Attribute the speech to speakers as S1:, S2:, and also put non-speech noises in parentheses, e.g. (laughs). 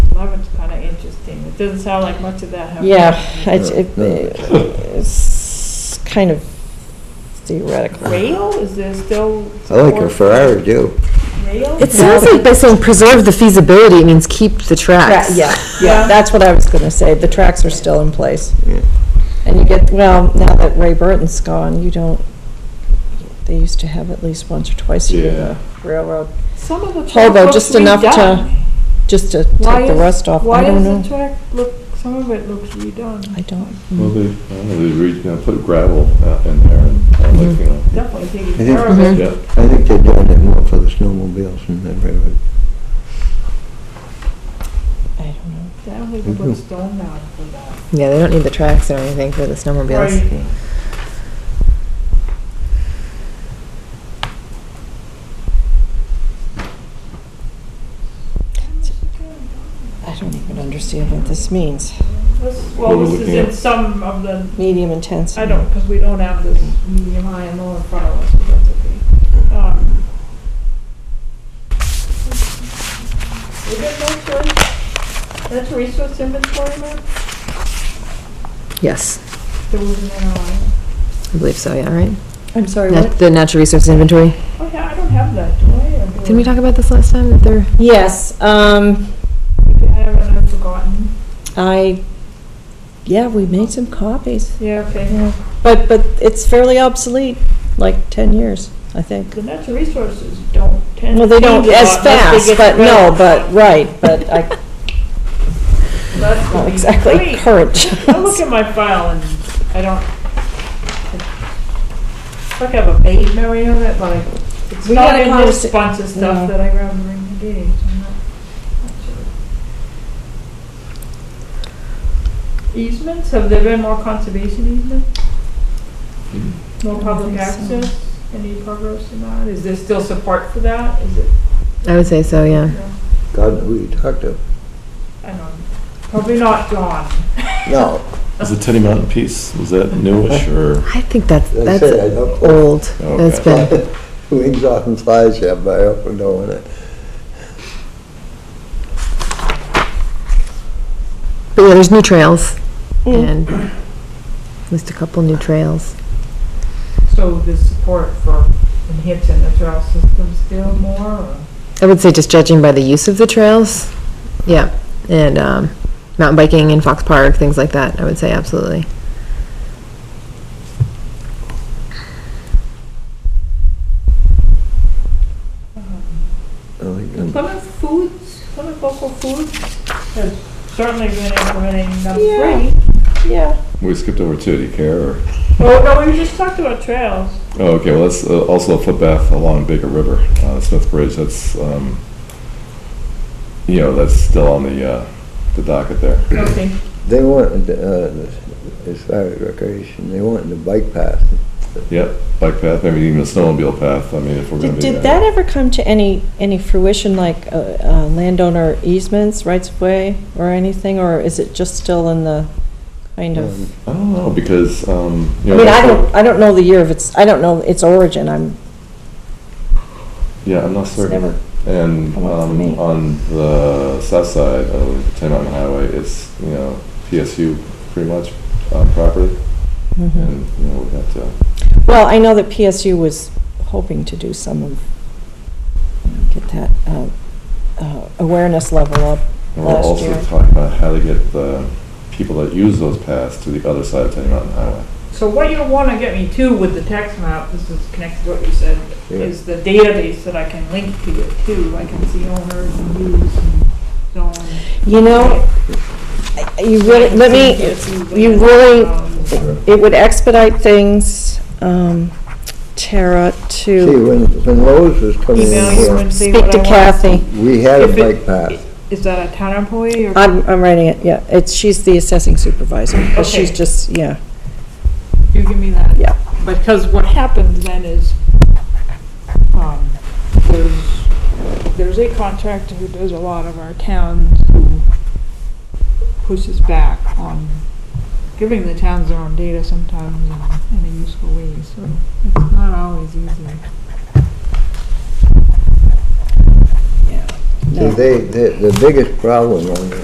S1: doesn't sound like much of that happened.
S2: Yeah, it's,
S3: Yeah,
S2: it- it's kind of theoretical.
S1: Rail, is there still?
S3: I like her
S1: support
S3: Ferrari too.
S1: for Rail?
S4: It sounds like by saying preserve the feasibility, it means keep the
S2: Tra-
S4: tracks.
S2: Yeah, yeah, that's what I was going to say. The tracks are still in place.
S3: Yeah.
S2: And you get, well, now that Ray Burton's gone, you don't, they used to have at least once or twice a year the railroad,
S1: Some of the track
S2: Although
S1: looks
S2: just enough to
S1: redone.
S2: just to
S1: Why
S2: take the
S1: is-
S2: rust off. I
S1: Why
S2: don't
S1: does the
S2: know.
S1: track look, some of it looks redone?
S2: I don't.
S5: Well, they, I don't know, they re, gonna put gravel out in there and, uh, like, you know,
S1: Definitely taking
S3: I think-
S1: care of it.
S2: Mm-hmm.
S5: yeah.
S3: I think they're doing it more for the snowmobiles than the railroad.
S2: I don't know.
S1: I don't think they
S3: Mm-hmm.
S1: put stone down for that.
S4: Yeah, they don't need the tracks or anything for the snowmobiles.
S1: Right.
S2: I don't even understand what this means.
S1: This-
S5: What
S1: Well,
S5: we're
S1: this is
S5: looking
S1: in
S5: at.
S1: some of the,
S2: Medium intense.
S1: I don't, because we don't have this medium high and low in front of us, but that's okay. Um, Is it next one? That's resource inventory map?
S4: Yes,
S1: There was an NRI.
S4: I believe so, yeah, right?
S2: I'm sorry,
S4: Nat-
S2: what?
S4: The natural resources inventory.
S1: Oh, yeah, I don't have that, do I? Or do
S4: Didn't we
S1: I?
S4: talk about this last time, that they're,
S2: Yes, um,
S1: I haven't, I've forgotten.
S2: I, yeah, we made some copies.
S1: Yeah, okay.
S2: Yeah, But, but it's fairly obsolete, like 10 years, I think.
S1: The natural resources don't tend to.
S2: Well, they don't
S1: change a
S2: as
S1: lot unless they get
S2: fast, but
S1: rid
S2: no,
S1: of-
S2: but, right, but I,
S1: That's (laughs)
S2: not
S1: what we-
S2: exactly
S1: Wait,
S2: current.
S1: I look at my file and I don't. It's like I have a vague memory of it, but I- it's
S2: We
S1: not
S2: had a
S1: in this
S2: conversa-
S1: bunch of
S2: No.
S1: stuff that I grabbed during the meeting. so I'm not- not sure. Easements, have there been more conservation easements? More public access? Any progress in that? Is there still support for that? Is it,
S4: I would say so, yeah.
S3: God, who you talk to?
S1: I don't know, probably not John.
S3: No,
S5: Is the Teddy Mountain piece, was that
S2: (laughs)
S5: newish or?
S4: I think that's,
S3: They
S4: that's
S3: said I Oh, don't-
S4: old. That's
S5: Okay.
S3: (laughs)
S4: been,
S3: wings off and flies, yeah, but I hope we don't win it.
S4: but yeah, there's new trails
S2: (laughs)
S4: and at least a couple new trails.
S1: So the support for enhancing the trail system still more, or?
S4: I would say just judging by the use of the trails, yeah, and um, mountain biking in Fox Park, things like that, I would say absolutely.
S3: I like them.
S1: Plymouth Foods, Plymouth Local Foods has certainly been implementing number three.
S2: yeah.
S5: We skipped over two, do you care or?
S1: Oh, no, we just talked about trails.
S5: Oh, okay, well, that's uh, also a footpath along Baker River, uh, Smith Bridge, that's, um, you know, that's still on the, uh, the docket there.
S1: Okay,
S3: They wanted, uh, as far as recreation, they wanted the bike path.
S5: Yep, bike path, maybe even a snowmobile path, I mean, if we're gonna
S2: Did
S5: do
S2: did that ever come to any, any fruition, like uh, uh, landowner easements, rights of way, or anything? Or is it just still in the kind of?
S5: I don't know, because, um, you
S2: I
S5: know.
S2: mean, I
S5: Um, that's what-
S2: don't, I don't know the year of its, I don't know its origin, I'm,
S5: Yeah, I'm not
S2: It's
S5: certain.
S2: never
S5: And
S2: come up for me.
S5: um, on the south side of Ten Mountain Highway, it's, you know, PSU pretty much um, property.
S2: mm-hmm.
S5: And, you know, we have to,
S2: well, I know that PSU was hoping to do some of, get that uh, uh, awareness level up.
S5: and we're
S2: Last
S5: also
S2: year.
S5: talking about how to get the people that use those paths to the other side of Ten Mountain Highway.
S1: so what you wanna get me to with the tax map, this is connected to what you said,
S3: Yeah.
S1: is the database that I can link to it too. I can see owners and use and zone.
S2: You know, I- you really, let me, you really- it would expedite things, um, Tara,
S3: See,
S2: to
S3: when, when Lowe's was coming in
S1: Email you
S3: here,
S1: and see
S2: speak
S1: what I
S2: to
S1: want.
S2: Kathy.
S3: we had a
S1: If it-
S3: bike path.
S1: Is that a town employee or?
S2: I'm, I'm writing it, yeah, it's, she's the assessing supervisor, but she's
S1: Okay.
S2: just, yeah,
S1: You give me that?
S2: Yeah.
S1: Because what happens then is, um, there's, there's a contractor who does a lot of our towns who pushes back on giving the towns their own data sometimes in, in a useful way, so it's not always easy.
S2: yeah.
S3: See,
S2: No.
S3: they, the, the biggest problem on